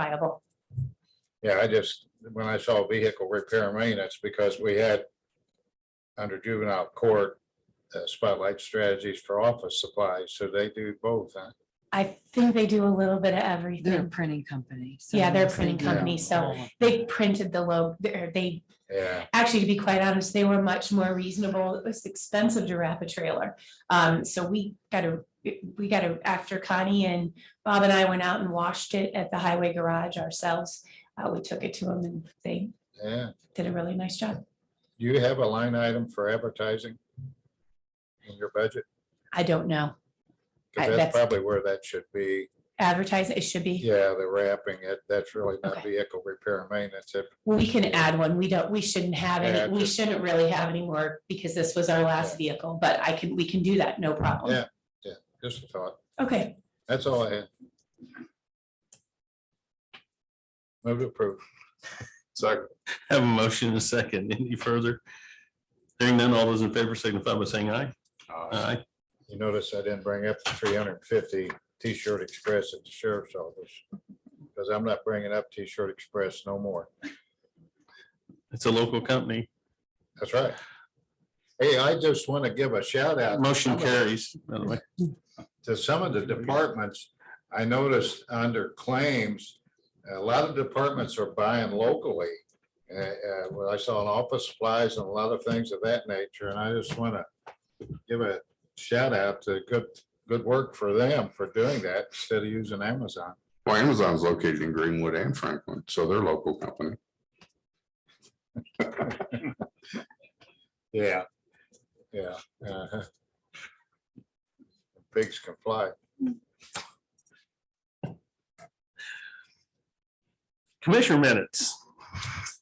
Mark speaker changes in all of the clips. Speaker 1: viable.
Speaker 2: Yeah, I just, when I saw vehicle repair and maintenance, because we had under juvenile court, uh, spotlight strategies for office supplies, so they do both, huh?
Speaker 1: I think they do a little bit of
Speaker 3: They're a
Speaker 1: everything.
Speaker 3: printing company. so
Speaker 1: Yeah, they're a
Speaker 3: yes, they
Speaker 1: printing
Speaker 3: do.
Speaker 1: company, so they printed the logo, they,
Speaker 2: Yeah,
Speaker 1: actually, to be quite honest, they were much more reasonable. It was expensive to wrap a trailer. Um, so we gotta, we gotta, after Connie and Bob and I went out and washed it at the highway garage ourselves. Uh, we took it to them and they
Speaker 2: yeah.
Speaker 1: did a really nice job.
Speaker 2: Do you have a line item for advertising in your budget?
Speaker 1: I don't know. I-
Speaker 2: Because that's
Speaker 1: that's-
Speaker 2: probably where that should be.
Speaker 1: Advertise, it should be,
Speaker 2: Yeah, the wrapping, it, that's really not
Speaker 1: Okay.
Speaker 2: vehicle repair and maintenance. It-
Speaker 1: we can add one. We don't, we shouldn't have
Speaker 2: Yeah,
Speaker 1: any, we
Speaker 2: just-
Speaker 1: shouldn't really have any more because this was our last vehicle, but I can, we can do that, no problem.
Speaker 2: Yeah. Just a thought.
Speaker 1: Okay,
Speaker 2: That's all I had. Move to approve.
Speaker 4: Second. Have a motion and a second. Any further? Hearing none, all those in favor signify by saying aye. Aye.
Speaker 2: You notice I didn't bring up the three hundred and fifty T-shirt Express at the sheriff's office. Because I'm not bringing up T-shirt Express no more.
Speaker 4: It's a local company.
Speaker 2: That's right. Hey, I just want to give a shout out
Speaker 4: Motion carries, by the way.
Speaker 2: to some of the departments. I noticed under claims, a lot of departments are buying locally. Uh, uh, well, I saw an office supplies and a lot of things of that nature, and I just want to give a shout out to good, good work for them for doing that instead of using Amazon.
Speaker 5: Well, Amazon's located in Greenwood and Franklin, so they're local company.
Speaker 2: Yeah, yeah. uh-huh. Pigs can fly.
Speaker 4: Commissioner minutes,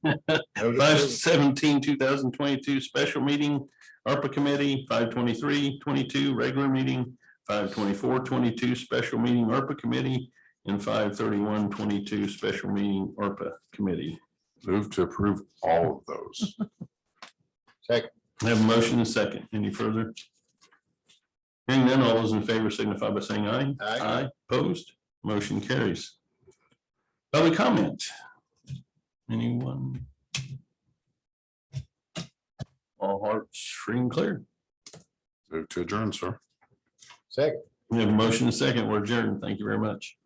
Speaker 2: No
Speaker 4: five
Speaker 2: decision.
Speaker 4: seventeen, two thousand twenty-two, special meeting, ARPA committee, five twenty-three, twenty-two, regular meeting, five twenty-four, twenty-two, special meeting, ARPA committee, and five thirty-one, twenty-two, special meeting, ARPA committee.
Speaker 5: Move to approve all of those.
Speaker 2: Second,
Speaker 4: Have a motion and a second. Any further? Hearing none, all those in favor signify by saying aye.
Speaker 2: Aye.
Speaker 4: Opposed, motion carries. Public comment. Anyone? All hearts free and clear.
Speaker 5: Move to adjourn, sir.
Speaker 2: second.
Speaker 4: We have a motion and a second. We're adjourned. Thank you very much.